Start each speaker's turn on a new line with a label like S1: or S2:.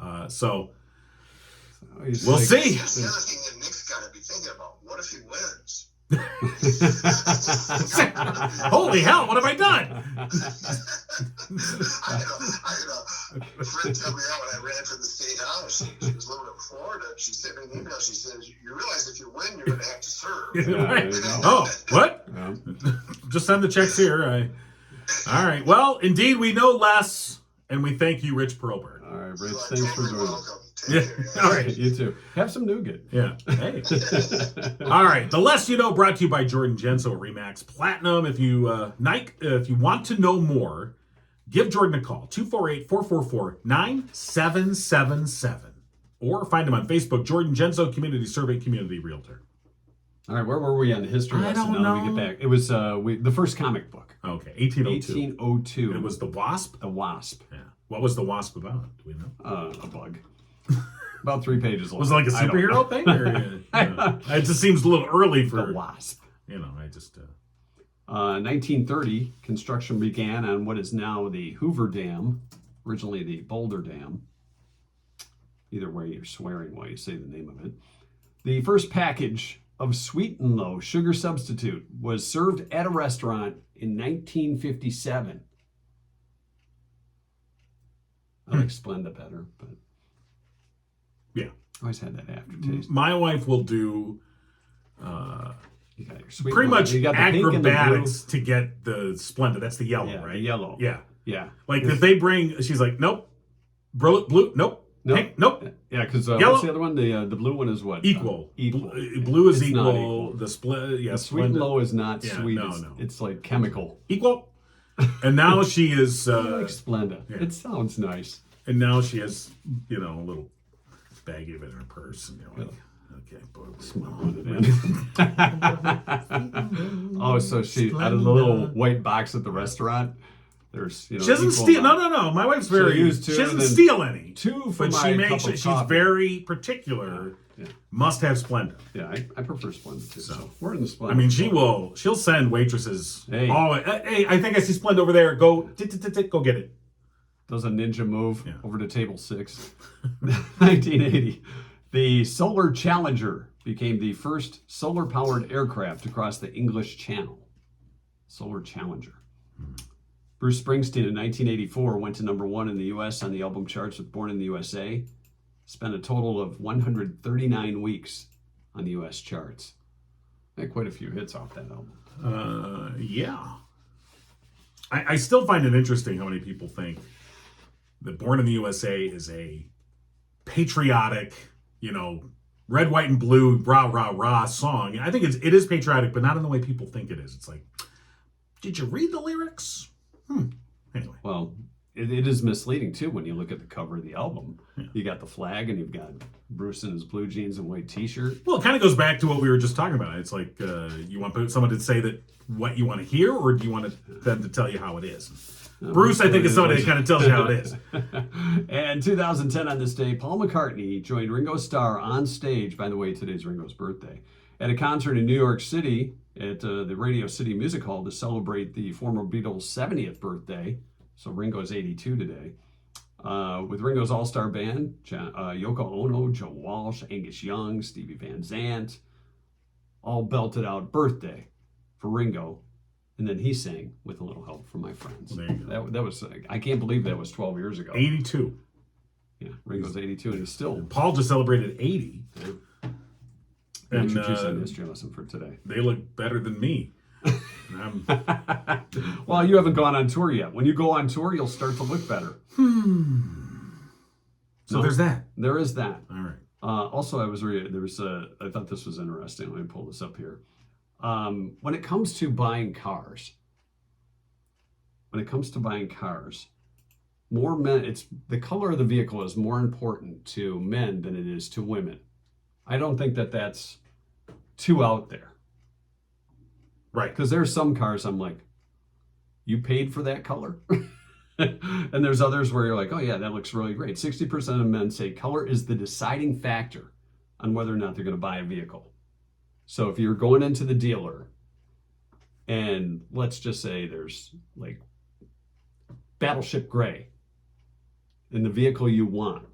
S1: Uh, so
S2: He's
S1: we'll
S2: like-
S1: see.
S3: That's the other thing that Nick's got to be thinking about. What if he wins?
S1: Holy hell! What have I done?
S3: I had a, I had a friend tell me that when I ran for the state house. She was living in Florida. She sent me an email. She says, "You realize if you win, you're going to have to serve."
S2: there you
S1: Right.
S2: go.
S1: Oh, what?
S2: Yeah.
S1: Just send the checks here. I... All right. Well, indeed, we know less, and we thank you, Rich Perlberg.
S2: All right, Rich,
S3: You are
S2: thanks for
S3: totally
S2: joining. us.
S3: welcome.
S1: Yeah.
S3: Take care, guys.
S1: All right.
S2: You too. Have some nougat.
S1: Yeah. Hey. All right, the less you know, brought to you by Jordan Genso Remax Platinum. If you uh, Nike, uh, if you want to know more, give Jordan a call 248-444-9777 or find him on Facebook, Jordan Genso Community Survey Community Realtor.
S2: All right, where were we on the history
S1: I
S2: lesson?
S1: don't
S2: Now that we
S1: know.
S2: get back. It was uh, we, the first comic book,
S1: Okay, 1802.
S2: 1802.
S1: It was the wasp.
S2: The Wasp,
S1: Yeah. What was the wasp about? Do we know?
S2: uh, a bug. About three pages long.
S1: Was it like a
S2: I don't know.
S1: superhero thing? Or, uh, it just seems a little early
S2: The
S1: for
S2: Wasp.
S1: you know. I just uh,
S2: Uh, 1930, construction began on what is now the Hoover Dam, originally the Boulder Dam. Either way, you're swearing while you say the name of it. The first package of Sweet and Low sugar substitute was served at a restaurant in 1957. I'll explain that better, but
S1: Hmm. Yeah.
S2: always had that aftertaste.
S1: my wife will do. Uh,
S2: You got your sweet
S1: pretty
S2: and low.
S1: much
S2: You got the pink and the blue.
S1: acrobatics to get the Splenda. That's the yellow,
S2: Yeah, the
S1: right?
S2: yellow.
S1: Yeah.
S2: Yeah,
S1: Like if they bring, she's like, nope. Blue, blue nope.
S2: Nope.
S1: Pink, nope.
S2: yeah, because uh,
S1: Yellow-
S2: what's the other one? The uh, the blue one is what? Uh,
S1: Equal.
S2: equal.
S1: Bl- uh, Blue is
S2: It's
S1: equal.
S2: not
S1: The split, yeah,
S2: The sweet and
S1: Splenda-
S2: low is not
S1: Yeah,
S2: sweet.
S1: no,
S2: it's,
S1: no.
S2: it's like chemical.
S1: equal. And now she is,
S2: I like
S1: uh,
S2: Splenda.
S1: yeah.
S2: It sounds nice.
S1: and now she has, you know, a little baggie of it in her purse, and you're like, okay, boy, we-
S2: oh, so she out of the little white box at the restaurant. There's you know.
S1: She doesn't
S2: equal
S1: steal. No,
S2: amount.
S1: no, no. My wife's very.
S2: used to,
S1: she doesn't
S2: and then
S1: steal any.
S2: Two for
S1: But
S2: my
S1: she
S2: cup
S1: makes
S2: of
S1: it. She's
S2: coffee.
S1: very particular.
S2: Yeah.
S1: Must have Splenda.
S2: Yeah, I, I prefer Splenda too. So,
S1: So.
S2: we're in the Splenda.
S1: I mean, she will. She'll send waitresses.
S2: Hey.
S1: Oh, hey, I think I see Splenda over there. Go, tit, tit, tit, tit, go get it.
S2: does a ninja move
S1: Yeah.
S2: over to table six. 1980, the Solar Challenger became the first solar powered aircraft to cross the English Channel. Solar Challenger. Bruce Springsteen in 1984 went to number one in the US on the album charts with Born in the USA. Spent a total of 139 weeks on the US charts. Had quite a few hits off that album.
S1: Uh, yeah. I, I still find it interesting how many people think that Born in the USA is a patriotic, you know, red, white, and blue, rah, rah, rah song. I think it's, it is patriotic, but not in the way people think it is. It's like, did you read the lyrics? Hmm. Anyway.
S2: Well, it, it is misleading too when you look at the cover of the album. You got the flag, and you've got Bruce in his blue jeans and white T-shirt.
S1: Well, it kind of goes back to what we were just talking about. It's like uh, you want someone to say that what you want to hear, or do you want to, them to tell you how it is? Bruce, I think, is somebody that kind of tells you how it is.
S2: and 2010 on this day, Paul McCartney joined Ringo Starr on stage. By the way, today's Ringo's birthday. At a concert in New York City at uh, the Radio City Music Hall to celebrate the former Beatles' 70th birthday. So Ringo's 82 today. Uh, with Ringo's All Star Band, John, uh, Yoko Ono, Joe Walsh, Angus Young, Stevie Van Zandt, all belted out birthday for Ringo. And then he sang with a little help from my friends.
S1: There you go.
S2: That, that was, I can't believe that was 12 years ago.
S1: Eighty-two.
S2: Yeah, Ringo's 82 and he's still.
S1: Paul just celebrated eighty, and
S2: Introduce
S1: uh,
S2: that history lesson for today.
S1: they look better than me. And I'm,
S2: Well, you haven't gone on tour yet. When you go on tour, you'll start to look better.
S1: so
S2: No.
S1: there's that.
S2: There is that.
S1: All right.
S2: Uh, also, I was re- there was a. I thought this was interesting. Let me pull this up here. Um, when it comes to buying cars, when it comes to buying cars, more men. It's the color of the vehicle is more important to men than it is to women. I don't think that that's too out there
S1: Right.
S2: because there's some cars I'm like, you paid for that color. and there's others where you're like, oh yeah, that looks really great. 60% of men say color is the deciding factor on whether or not they're going to buy a vehicle. So if you're going into the dealer and let's just say there's like battleship gray in the vehicle you want,